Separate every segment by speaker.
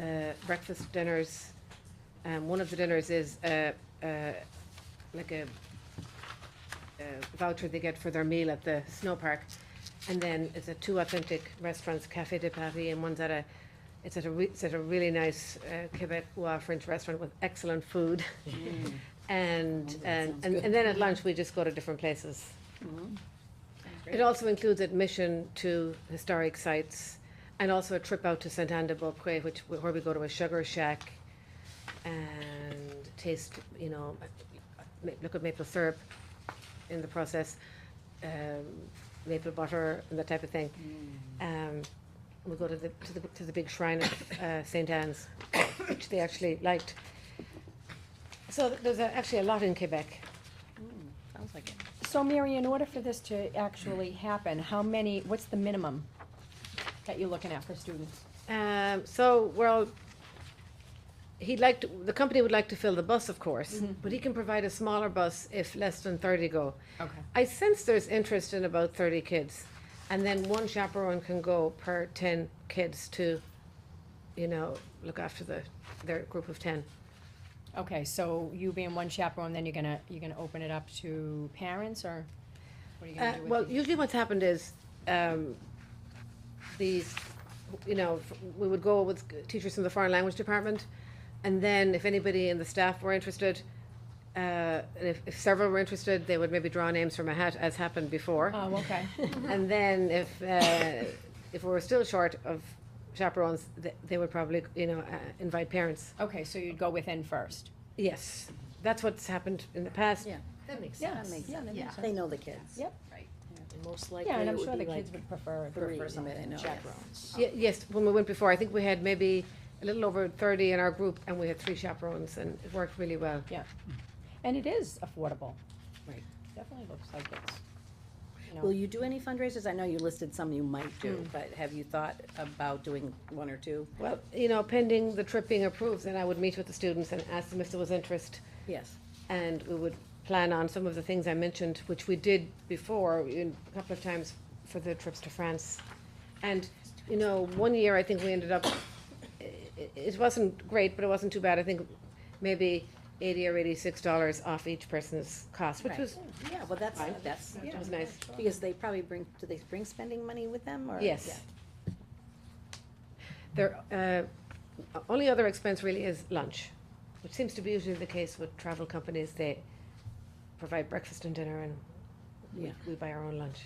Speaker 1: uh, breakfast dinners. Um, one of the dinners is uh, uh, like a, a voucher they get for their meal at the snow park, and then it's at two authentic restaurants, Café de Paris, and one's at a. It's at a re- it's at a really nice uh, Quebecois French restaurant with excellent food, and and, and and then at lunch we just go to different places. It also includes admission to historic sites and also a trip out to St. Anne de Beaupré, which, where we go to a sugar shack and taste, you know, ma- look at maple syrup in the process, um, maple butter and that type of thing. Um, we go to the, to the, to the big shrine of, uh, St. Anne's, which they actually liked. So th- there's a- actually a lot in Quebec.
Speaker 2: Sounds like it.
Speaker 3: So Mary, in order for this to actually happen, how many, what's the minimum that you're looking at for students?
Speaker 1: Um, so, well, he'd like to, the company would like to fill the bus, of course, but he can provide a smaller bus if less than thirty go.
Speaker 3: Okay.
Speaker 1: I sense there's interest in about thirty kids, and then one chaperone can go per ten kids to, you know, look after the, their group of ten.
Speaker 3: Okay, so you being one chaperone, then you're gonna, you're gonna open it up to parents, or what are you
Speaker 1: Uh,
Speaker 3: gonna do
Speaker 1: well,
Speaker 3: with the?
Speaker 1: usually what's happened is, um, these, you know, f- we would go with teachers from the foreign language department, and then if anybody in the staff were interested, uh, and if, if several were interested, they would maybe draw names from a hat, as happened before.
Speaker 3: Oh, okay,
Speaker 1: And then if, uh, if we were still short of chaperones, they, they would probably, you know, uh, invite parents.
Speaker 3: okay, so you'd go within first.
Speaker 1: Yes, that's what's happened in the past.
Speaker 2: Yeah.
Speaker 1: That makes
Speaker 3: Yeah,
Speaker 2: That makes
Speaker 3: yeah,
Speaker 2: sense.
Speaker 3: that makes
Speaker 4: They know the kids.
Speaker 3: Yep.
Speaker 2: And most
Speaker 3: Yeah,
Speaker 2: likely
Speaker 3: and
Speaker 2: it
Speaker 3: I'm sure
Speaker 2: would
Speaker 3: the
Speaker 2: be like
Speaker 3: kids would prefer,
Speaker 4: three,
Speaker 2: prefer somebody they know, yes.
Speaker 4: chaperones.
Speaker 1: Ye- Yes, when we went before, I think we had maybe a little over thirty in our group, and we had three chaperones, and it worked really well.
Speaker 3: and it is affordable.
Speaker 4: Right.
Speaker 3: Definitely looks like it's, you
Speaker 4: Will
Speaker 3: know,
Speaker 4: you do any fundraisers? I know you listed some you might do, but have you thought about doing one or two?
Speaker 1: Well, you know, pending the trip being approved, then I would meet with the students and ask them if there was interest,
Speaker 4: Yes.
Speaker 1: and we would plan on some of the things I mentioned, which we did before, in- a couple of times for the trips to France. And, you know, one year, I think we ended up, i- i- it wasn't great, but it wasn't too bad, I think maybe eighty or eighty-six dollars off each person's cost, which
Speaker 4: Right.
Speaker 1: was,
Speaker 4: Yeah, well, that's,
Speaker 1: Fine.
Speaker 4: that's,
Speaker 1: which was nice.
Speaker 4: because they probably bring, do they bring spending money with them or?
Speaker 1: Yes. Their uh, o- only other expense really is lunch, which seems to be usually the case with travel companies. They provide breakfast and dinner, and we,
Speaker 4: Yeah.
Speaker 1: we buy our own lunch.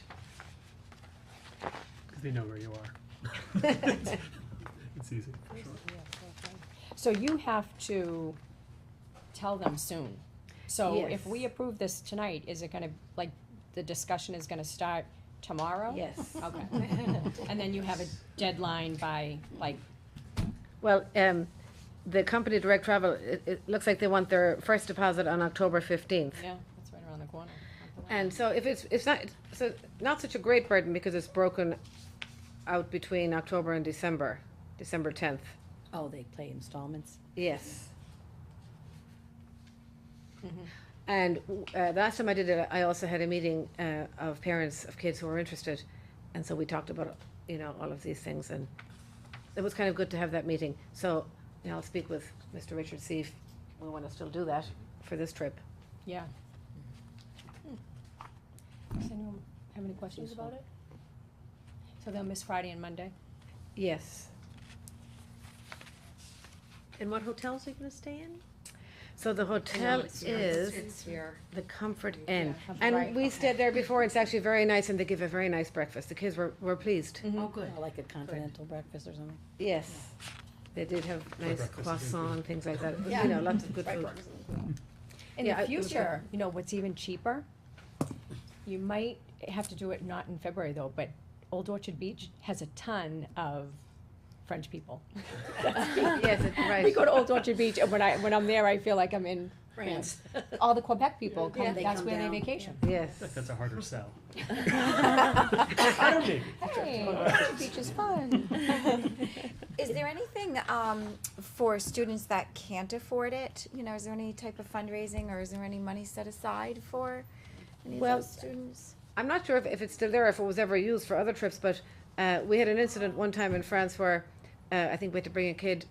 Speaker 5: Because they know where you are. it's easy. for sure.
Speaker 3: so you have to tell them soon. So
Speaker 1: Yes.
Speaker 3: if we approve this tonight, is it gonna, like, the discussion is gonna start tomorrow?
Speaker 1: Yes.
Speaker 3: Okay. And then you have a deadline by, like,
Speaker 1: Well, um, the company Direct Travel, it, it looks like they want their first deposit on October fifteenth.
Speaker 3: yeah, that's right around the corner.
Speaker 1: And so if it's, it's not, so not such a great burden because it's broken out between October and December, December tenth.
Speaker 4: Oh, they play installments?
Speaker 1: Yes. Mm-hmm. And uh, the last time I did it, I also had a meeting uh, of parents of kids who were interested, and so we talked about you know all of these things, and it was kind of good to have that meeting. So you know, I'll speak with Mr. Richard see if we want to still do that for this trip.
Speaker 3: Yeah. Hmm. Does anyone have any questions about it? So they'll miss Friday and Monday?
Speaker 1: Yes.
Speaker 4: And what hotels are you gonna stay in?
Speaker 1: So the hotel is the Comfort Inn,
Speaker 3: Yeah, Comfort-
Speaker 1: and
Speaker 3: right,
Speaker 1: we stayed there before. It's actually very nice, and they give a very nice breakfast. The kids were were pleased.
Speaker 3: Mhm.
Speaker 2: good.
Speaker 4: Oh, Like a continental breakfast or something?
Speaker 1: Yes, they did have nice
Speaker 5: breakfast is really good.
Speaker 1: croissant, things like that,
Speaker 2: Yeah.
Speaker 1: you know, lots of good food.
Speaker 3: In
Speaker 1: Yeah, I-
Speaker 3: the
Speaker 1: it was
Speaker 3: future, you know, what's even cheaper? You might have to do it not in February though, but Old Orchard Beach has a ton of French people.
Speaker 1: Yes, it-
Speaker 3: We
Speaker 1: right.
Speaker 3: go to Old Orchard Beach and when I, when I'm there, I feel like I'm in France. All the Quebec people
Speaker 4: Yeah,
Speaker 3: come,
Speaker 4: they
Speaker 3: that's
Speaker 4: come
Speaker 3: where they
Speaker 4: down.
Speaker 3: vacation.
Speaker 1: Yes,
Speaker 5: I think that's a harder sell. I don't think.
Speaker 3: Hey, Old Orchard Beach is fun.
Speaker 6: Is there anything um, for students that can't afford it? You know, is there any type of fundraising or is there any money set aside for any of
Speaker 1: Well,
Speaker 6: those students?
Speaker 1: I'm not sure if, if it's still there, if it was ever used for other trips, but, uh, we had an incident one time in France where, uh, I think we had to bring a kid